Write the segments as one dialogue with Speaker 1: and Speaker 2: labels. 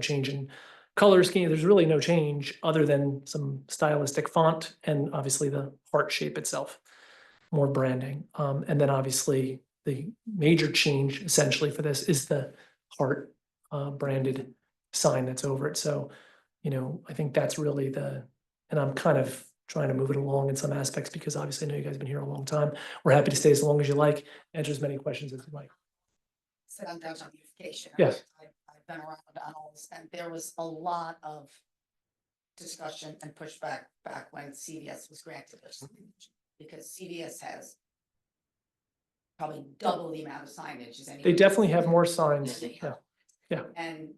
Speaker 1: change in color scheme. There's really no change other than some stylistic font and obviously the heart shape itself. More branding. Um, and then obviously the major change essentially for this is the heart uh, branded sign that's over it. So, you know, I think that's really the, and I'm kind of trying to move it along in some aspects because obviously I know you guys have been here a long time. We're happy to stay as long as you like, answer as many questions as you like.
Speaker 2: sent out a notification.
Speaker 1: Yes.
Speaker 2: I- I've been around on all this, and there was a lot of discussion and pushback back when CVS was granted this. Because CVS has probably double the amount of signage as any.
Speaker 1: They definitely have more signs.
Speaker 2: They
Speaker 1: Yeah.
Speaker 2: have.
Speaker 1: yeah.
Speaker 2: And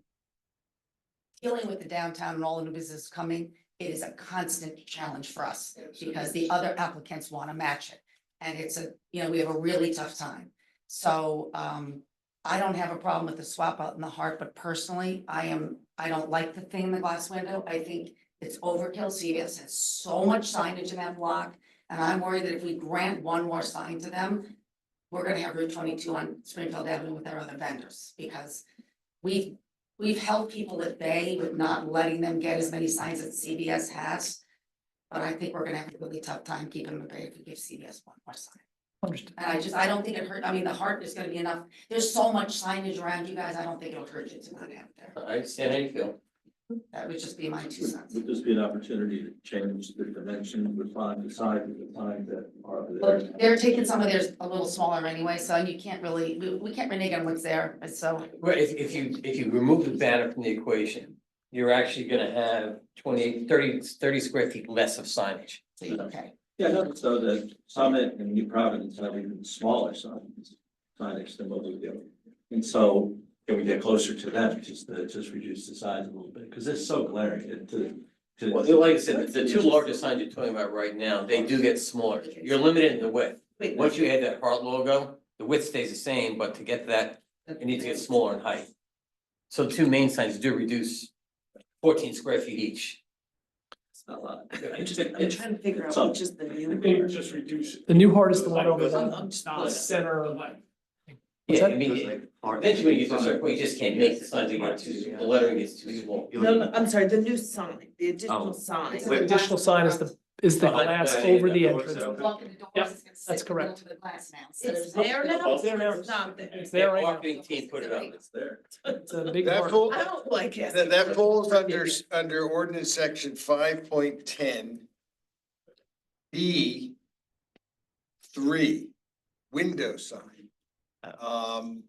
Speaker 2: dealing with the downtown and all the new business coming, it is a constant challenge for us because the other applicants want to match it. And it's a, you know, we have a really tough time. So um, I don't have a problem with the swap out in the heart, but personally, I am, I don't like the thing in the glass window. I think it's overkill. CVS has so much signage in that block. And I'm worried that if we grant one more sign to them, we're gonna have Route twenty-two on Springfield Avenue with our other vendors, because we've, we've held people at bay with not letting them get as many signs as CVS has. But I think we're gonna have a really tough time keeping them at bay if we give CVS one more sign.
Speaker 1: Understood.
Speaker 2: And I just, I don't think it hurt, I mean, the heart is gonna be enough, there's so much signage around you guys, I don't think it'll hurt you to not have it there.
Speaker 3: I understand how you feel.
Speaker 2: That would just be my two cents.
Speaker 4: Would this be an opportunity to change the dimension, refine the size of the signs that are there?
Speaker 2: But they're taking some of theirs a little smaller anyway, so you can't really, we, we can't renege on what's there, and so.
Speaker 3: Well, if, if you, if you remove the banner from the equation, you're actually gonna have 28, 30 30 square feet less of signage.
Speaker 2: Okay,
Speaker 4: Yeah, no, so the Summit and New Providence have even smaller signs, signage than what we do. And so can we get closer to that, just to, just reduce the size a little bit, because it's so glaring it- to, to.
Speaker 3: Well, like I said, the two largest signs you're talking about right now, they do get smaller. You're limited in the width.
Speaker 2: wait.
Speaker 3: Once you add that heart logo, the width stays the same, but to get to that, it needs to get smaller in height. So two main signs do reduce fourteen square feet each.
Speaker 4: It's not a lot.
Speaker 3: I'm
Speaker 5: I'm trying to figure
Speaker 4: So-
Speaker 5: out which is the new.
Speaker 6: They would just reduce it.
Speaker 1: The new heart is the one over
Speaker 6: Like,
Speaker 1: there.
Speaker 4: I'm just
Speaker 1: The center of
Speaker 6: like,
Speaker 1: What's
Speaker 3: Yeah, I
Speaker 1: that?
Speaker 3: mean, it- eventually when you get to a certain point, you just can't make the signs anymore, too, the lettering gets too small.
Speaker 5: No, no, I'm sorry, the new sign, the
Speaker 3: Oh.
Speaker 5: additional sign.
Speaker 2: It's
Speaker 1: The
Speaker 2: a
Speaker 1: additional sign is the, is the
Speaker 4: Behind
Speaker 1: glass
Speaker 4: the-
Speaker 1: over
Speaker 4: the
Speaker 1: the
Speaker 4: doors
Speaker 1: entrance.
Speaker 4: out.
Speaker 2: Lock in the doors,
Speaker 1: Yep,
Speaker 2: it's gonna sit
Speaker 1: that's correct.
Speaker 2: middle to the glass now, so
Speaker 5: It's
Speaker 2: there's-
Speaker 5: there now?
Speaker 1: It's there now.
Speaker 5: It's not there.
Speaker 1: It's there
Speaker 3: Their
Speaker 1: right now.
Speaker 3: marketing team put it up.
Speaker 4: It's there.
Speaker 1: It's a big
Speaker 7: That
Speaker 1: heart.
Speaker 7: fall-
Speaker 5: I don't like it.
Speaker 7: that, that falls under, s- under ordinance section five point ten. B. Three, window sign. Um.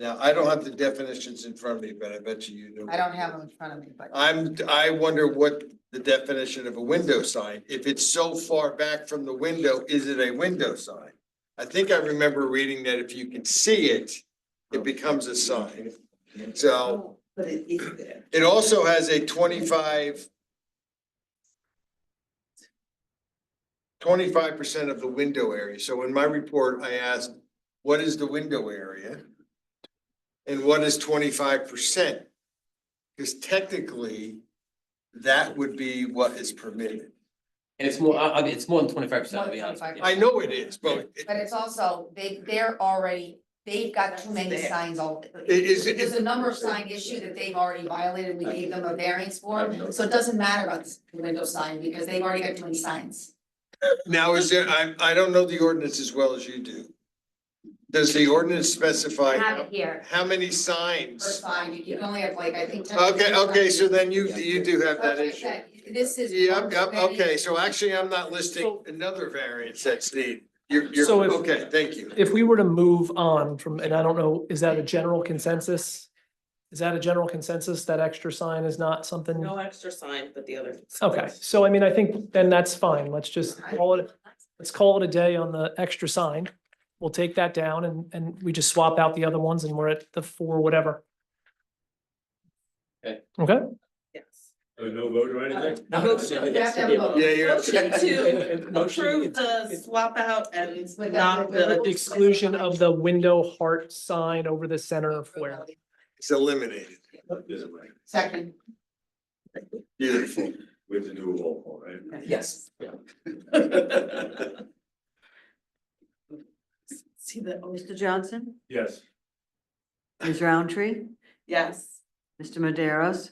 Speaker 7: Now, I don't have the definitions in front of me, but I bet you you know.
Speaker 2: I don't have them in front of me, but
Speaker 7: I'm, I wonder what the definition of a window sign, if it's so far back from the window, is it a window sign? I think I remember reading that if you can see it, it becomes a sign. So
Speaker 5: Oh, But it is there.
Speaker 7: it also has a twenty-five. Twenty-five percent of the window area. So in my report, I asked, what is the window area? And what is twenty-five percent? Because technically, that would be what is permitted.
Speaker 3: And it's more, I, I mean, it's more than twenty-five percent, I'll be honest. with you.
Speaker 7: I know it is, but it-
Speaker 2: but it's also, they, they're already, they've got too many
Speaker 5: There.
Speaker 2: signs all.
Speaker 7: it is. it-
Speaker 2: There's a number of sign issue that they've already violated, we gave them a variance for, so it doesn't matter about this window sign, because they've already got too many signs.
Speaker 7: Now, is there, I, I don't know the ordinance as well as you do. Does the ordinance specify
Speaker 2: Have it here,
Speaker 7: how many
Speaker 2: per
Speaker 7: signs?
Speaker 2: sign, you can only have like, I think. 10
Speaker 7: Okay, okay, so then you, you do have that
Speaker 2: That's what I
Speaker 7: issue.
Speaker 2: said. This is.
Speaker 7: Yep,
Speaker 2: one
Speaker 7: yep,
Speaker 2: too many.
Speaker 7: okay, so actually, I'm not listing
Speaker 1: So-
Speaker 7: another variance that's needed. You're, you're,
Speaker 1: So if-
Speaker 7: okay, thank you.
Speaker 1: If we were to move on from, and I don't know, is that a general consensus? Is that a general consensus? That extra sign is not something?
Speaker 5: No extra sign, but the other.
Speaker 1: Okay, so I mean, I think then that's fine. Let's just call it, let's call it a day on the extra sign. We'll take that down and, and we just swap out the other ones and we're at the four, whatever.
Speaker 3: Okay.
Speaker 1: Okay,
Speaker 5: Yes.
Speaker 6: Uh, no vote or anything?
Speaker 5: Motion
Speaker 2: You have to have a vote.
Speaker 7: Yeah, you're,
Speaker 5: Motion to
Speaker 6: Motion,
Speaker 5: approve the swap out and not
Speaker 1: The
Speaker 5: the.
Speaker 1: exclusion of the window heart sign over the center of where.
Speaker 7: it's eliminated.
Speaker 2: Second.
Speaker 7: Beautiful.
Speaker 4: With the new roll call, right?
Speaker 3: Yes.
Speaker 5: See the,
Speaker 8: Mr. Johnson,
Speaker 6: Yes.
Speaker 8: Ms. Roundtree,
Speaker 5: yes.
Speaker 8: Mr. Maderos?